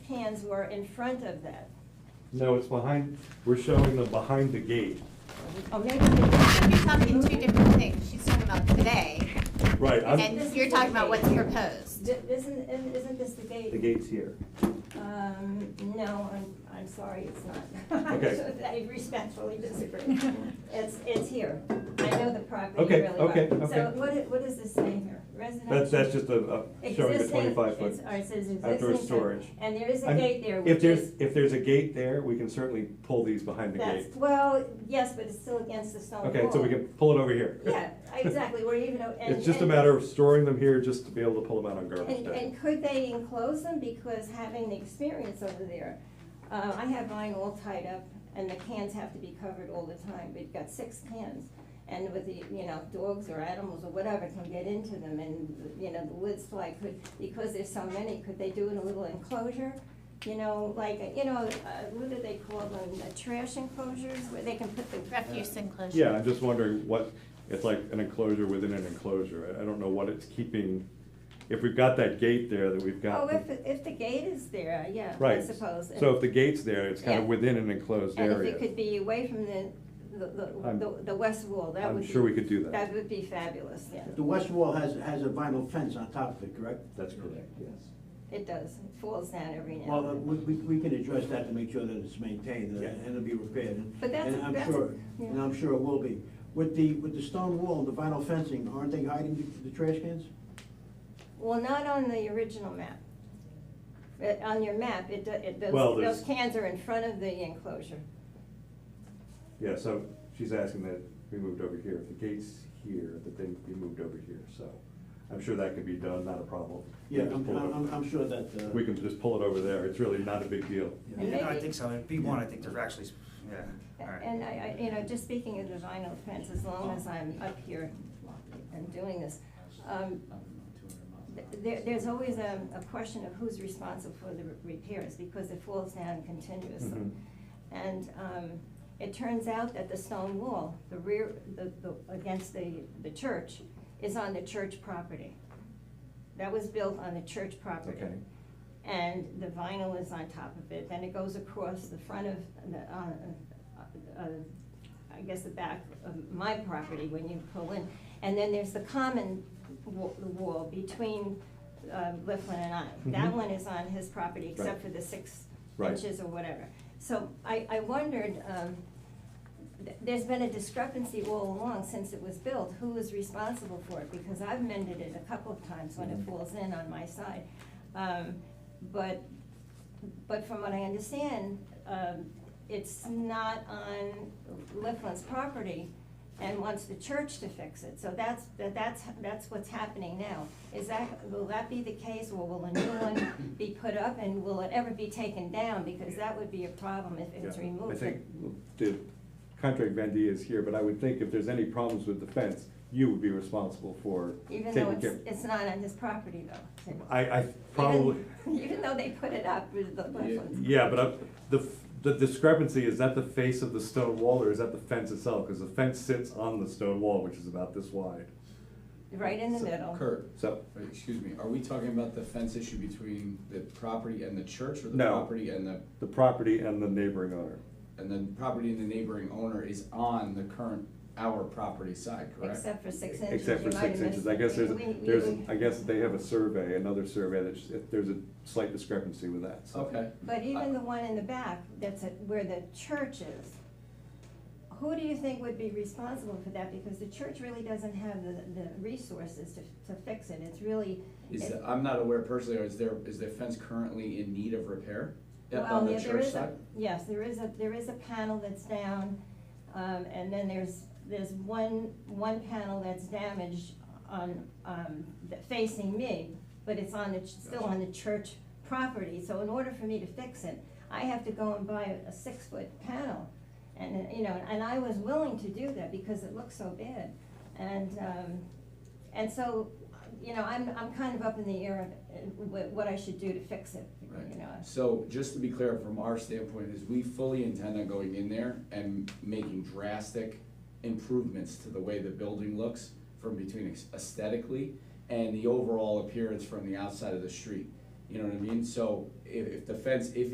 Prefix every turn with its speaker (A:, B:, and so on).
A: cans were in front of that.
B: No, it's behind, we're showing them behind the gate.
A: Oh, maybe they
C: You're talking two different things. She's talking about today,
B: Right, I'm,
C: and you're talking about what's proposed.
A: Th- Isn't, isn't this the gate?
B: the gate's here.
A: Um, no, I'm, I'm sorry, it's not.
B: Okay.
A: I respectfully disagree. It's, it's here. I know the property
B: Okay,
A: really well.
B: okay,
A: So
B: okay.
A: what, i- what does this say here? Residential?
B: That's, that's just a, a- showing the
A: Existing-
B: twenty-five
A: it's-
B: foot
A: or it says existing
B: outdoor
A: type.
B: storage.
A: And there is a
B: I'm-
A: gate there,
B: If
A: which
B: there's,
A: is,
B: if there's a gate there, we can certainly pull these behind the
A: that's,
B: gate.
A: well, yes, but it's still against the stone wall.
B: Okay, so we can pull it over here.
A: Yeah, exactly, We're even, o- and.
B: It's just a
A: and-
B: matter of storing them here just to be able to pull them out on garbage
A: And,
B: day.
A: and could they enclose them, because having the experience over there, uh, I have mine all tied up, and the cans have to be covered all the time, we've got six cans. And with the, you know, dogs or animals or whatever can get into them, and, you know, the lids fly, could, because there's so many, could they do it in a little enclosure? You know, like, you know, uh, what do they call them, the trash enclosures, where they can put the.
C: Refuse enclosure.
B: Yeah, I'm just wondering what, it's like an enclosure within an enclosure. I, I don't know what it's keeping, if we've got that gate there that we've got.
A: Oh, if, if the gate is there, yeah, I
B: Right.
A: suppose.
B: So if the gate's there, it's kind
A: Yeah.
B: of within an enclosed
A: And if it
B: area.
A: could be away from the, the, the-
B: I'm-
A: the, the west wall, that would
B: I'm
A: be.
B: sure we could do that.
A: That would be fabulous, yeah,
D: The west wall has, has a vinyl fence on top of it, correct?
B: That's correct, yes.
A: it does, it falls down every now
D: Well, uh,
A: and then.
D: we, we we can address that to make sure that it's maintained and-
B: Yeah.
D: and it'll be repaired. and-
A: But that's-
D: And I'm
A: that's-
D: sure,
A: yeah.
D: and I'm sure it will be. With the, with the stone wall and the vinyl fencing, aren't they hiding the- the trash cans?
A: Well, not on the original map. But on your map, it, do- it,
B: Well,
A: those,
B: there's-
A: those cans are in front of the enclosure.
B: Yeah, so she's asking that we moved over here. If the gate's here, that they be moved over here, so I'm sure that could be done, not a problem. We
D: Yeah,
B: just
D: I'm,
B: pull it
D: I'm,
B: over-
D: I'm- I'm sure that, uh.
B: We can just pull it over there. It's really not a big deal.
A: And
E: Yeah, no, I
A: maybe-
E: think so, In B one, I think they're actually, yeah, all right.
A: And I, I, you know, just speaking of the vinyl fence, as long as I'm up here and doing this, um, th- there, there's always a, a question of who's responsible for the repairs, because it falls down continuously.
B: Mhm.
A: And um, it turns out that the stone wall, the rear, the, the, against the, the church, is on the church property. That was built on the church property.
B: Okay.
A: And the vinyl is on top of it, then it goes across the front of, the, uh, uh, I guess the back of my property when you pull in. And then there's the common wa- the wall between uh, Mifflin and I. That
B: Mhm.
A: one is on his property, except
B: Right.
A: for the six
B: Right.
A: inches or whatever. So I, I wondered, um, th- there's been a discrepancy all along since it was built, who is responsible for it? Because I've mended it a couple of times when it
B: Mhm.
A: falls in on my side. Um, But, but from what I understand, um, it's not on Liflin's property and wants the church to fix it. So that's, that- that's, that's what's happening now. Is that, will that be the case, or will a new one be put up, and will it ever be taken down? Because that would be a problem if it's
B: Yeah. I
A: removed.
B: think the contract vendee is here, but I would think if there's any problems with the fence, you would be responsible for
A: Even
B: taking care.
A: though it's, it's not on his property, though.
B: I, I probably.
A: Even- Even though they put it up with the Liflin's.
B: Yeah, but I- the, f- the discrepancy, is that the face of the stone wall or is that the fence itself? Because the fence sits on the stone wall, which is about this wide.
A: right in the
F: So,
A: middle.
F: Kurt,
B: So,
F: wait, excuse me, are we talking about the fence issue between the property and the church or the
B: No.
F: property and the,
B: the property and the neighboring owner.
F: and the property and the neighboring owner is on the current, our property side, correct?
A: Except for six inches.
B: Except for
A: You might
B: six
A: have
B: inches,
A: missed
B: I
A: it.
B: guess there's,
A: We- we-
B: there's, I guess they have a survey, another survey that, sh- there's a slight discrepancy with that, so.
F: Okay.
A: But even the one in the back, that's at- where the church is, who do you think would be responsible for that? Because the church really doesn't have the, the resources to, to fix it. It's really.
F: Is, the- I'm not aware personally, or is there, is the fence currently in need of repair? Up
A: Well,
F: on the
A: yeah, there
F: church
A: is a-
F: side?
A: Yes, there is a, there is a panel that's down, um, and then there's, there's one, one panel that's damaged on, um, that facing me, but it's on the, ch- still on the church property, so in order for me to fix it, I have to go and buy a six-foot panel. And, uh, you know, and I was willing to do that because it looks so bad. And, um, and so, you know, I'm, I'm kind of up in the air of uh, what, what I should do to fix it, you
F: Right.
A: know.
F: So just to be clear, from our standpoint, is we fully intend on going in there and making drastic improvements to the way the building looks from between aesthetically and the overall appearance from the outside of the street. You know what I mean? So if, if the fence, if